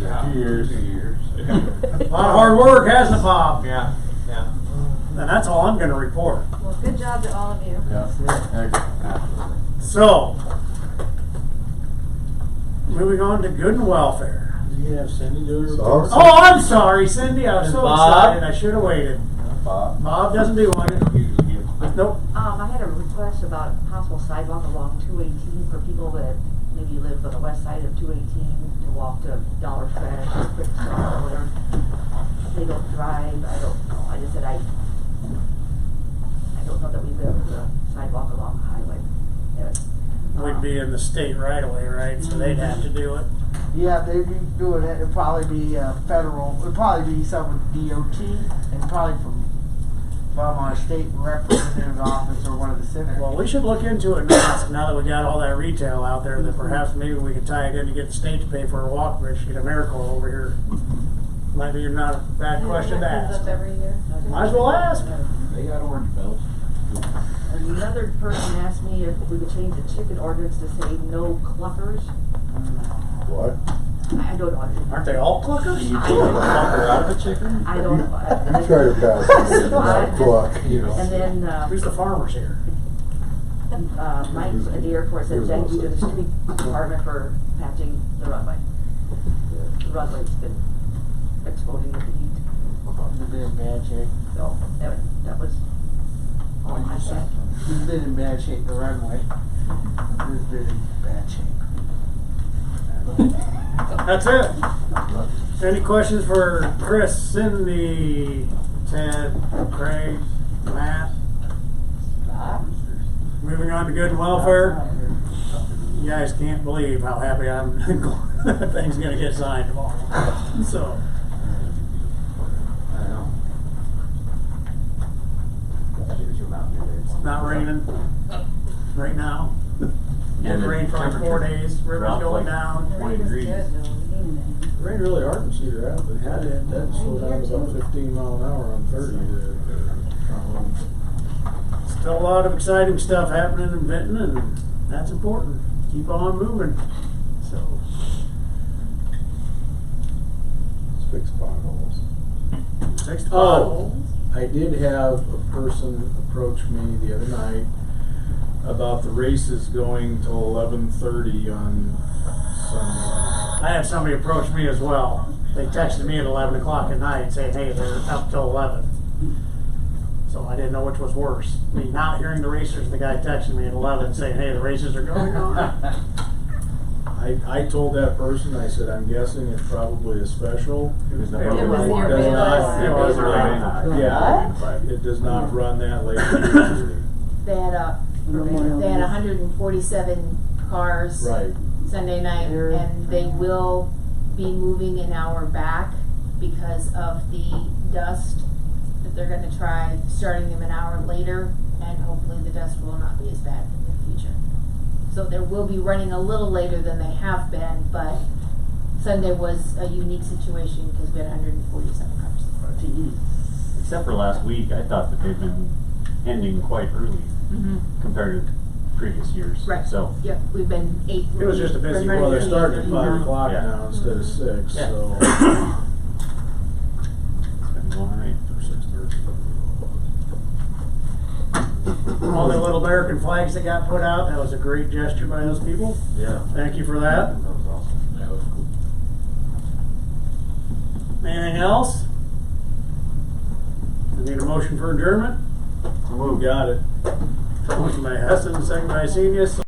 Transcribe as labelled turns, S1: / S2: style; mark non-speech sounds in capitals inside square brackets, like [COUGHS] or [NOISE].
S1: Yeah,
S2: Two years.
S1: Two
S2: [LAUGHS]
S1: years.
S2: A lot of hard work, hasn't it, Bob?
S1: Yeah, yeah.
S2: And that's all I'm gonna report.
S3: Well, good job to all of you.
S2: So, moving on to good and welfare.
S4: You can have Cindy do her
S5: So-
S4: report.
S2: Oh, I'm sorry, Cindy, I was so
S1: Bob?
S2: excited, I should've waited.
S5: Bob.
S2: Bob doesn't do one. Nope,
S3: Um, I had a request about possible sidewalk along two eighteen for people that maybe live on the west side of two eighteen to walk to Dollar Fresh, Quick Stop, or whatever. They don't drive, I don't know, I just said I, I don't know that we live with a sidewalk along the highway. It was,
S2: we'd
S3: um,
S2: be in the state right away, right? So they'd have to do it.
S6: Yeah, they'd be doing it. It'd probably be uh, federal. It'd probably be some with DOT and probably from from our state representative's office or one of the senators.
S2: Well, we should look into it now, now that we got all that retail out there, that perhaps maybe we could tie it in to get the state to pay for a walk bridge, get AmeriCorps over here. Might be not a bad question to ask.
S3: Um,
S2: Might as well ask.
S5: They got orange belts.
S3: Another person asked me if we could change the chicken ordinance to say no cluckers.
S5: What?
S3: I I don't know.
S2: Aren't they all cluckers?
S3: I don't know.
S1: out of a chicken?
S3: I don't know. I-
S5: You try to pass it,
S3: [LAUGHS] I
S5: not
S3: just-
S5: pluck, you
S3: And
S5: know.
S3: then, uh,
S2: Who's the farmers here?
S3: uh, Mike at the airport said, thank you to the street department for patching the runway. The runway's been exploding with the heat,
S6: You've been in bad shape.
S3: so that, that was all I said.
S6: You've been in bad shape. The runway. You've been in bad shape.
S2: [LAUGHS] That's it. Any questions for Chris, Cindy, Ted, Craig, Matt? Moving on to good and welfare. You guys can't believe how happy I'm. [LAUGHS] things gonna get signed tomorrow. So
S1: I know.
S2: not raining right now.
S1: Yeah,
S2: It's
S1: the
S2: rained for like four
S1: temperature [LAUGHS]
S2: days. River's
S1: dropped
S2: going
S1: like-
S2: down.
S1: Twenty degrees.
S4: It Rained really hard in Cedar Rapids. That, that slowed down to about fifteen mile an hour on thirty there.
S2: Still a lot of exciting stuff happening in Benton, and that's important. Keep on moving. So.
S5: It's fixed potholes.
S2: Six
S4: Oh. I did have a person approach me the other night about the races going till eleven thirty on Sunday.
S2: I had somebody approach me as well. They texted me at eleven o'clock at night saying, hey, they're up till eleven. So I didn't know which was worse, me not hearing the racers, the guy texting me at eleven saying, hey, the races are going on.
S4: I, I told that person, I said, I'm guessing it's probably a special.
S2: It was the
S4: Does
S2: Irvine.
S4: not-
S2: It was the Irvine.
S4: It was the
S2: Irvine.
S4: Irvine. Yeah, it does not run that late usually.
S7: They had a, they had hundred and forty-seven cars
S4: Right.
S7: Sunday night, and they will be moving an hour back because of the dust, that they're gonna try starting them an hour later, and hopefully the dust will not be as bad in the future. So they will be running a little later than they have been, but Sunday was a unique situation because we had hundred and forty-seven cars.
S8: e, Except for last week, I thought that they've been ending quite early
S7: Mm-hmm.
S8: compared to previous years.
S7: Right.
S8: So,
S7: Yep, we've been eight.
S2: It was just a busy-
S4: Well, they're starting at five o'clock
S8: Yeah.
S4: now instead of six,
S2: Yeah.
S4: [COUGHS] so.
S8: it's been going all right.
S4: Or six thirty.
S2: All the little American flags that got put out, that was a great gesture by those people.
S1: Yeah.
S2: Thank you for that.
S1: was awesome.
S4: That was cool.
S2: Anything else? I need a motion for adjournment.
S4: Got it.
S2: Motion by Hessen, second by Senius.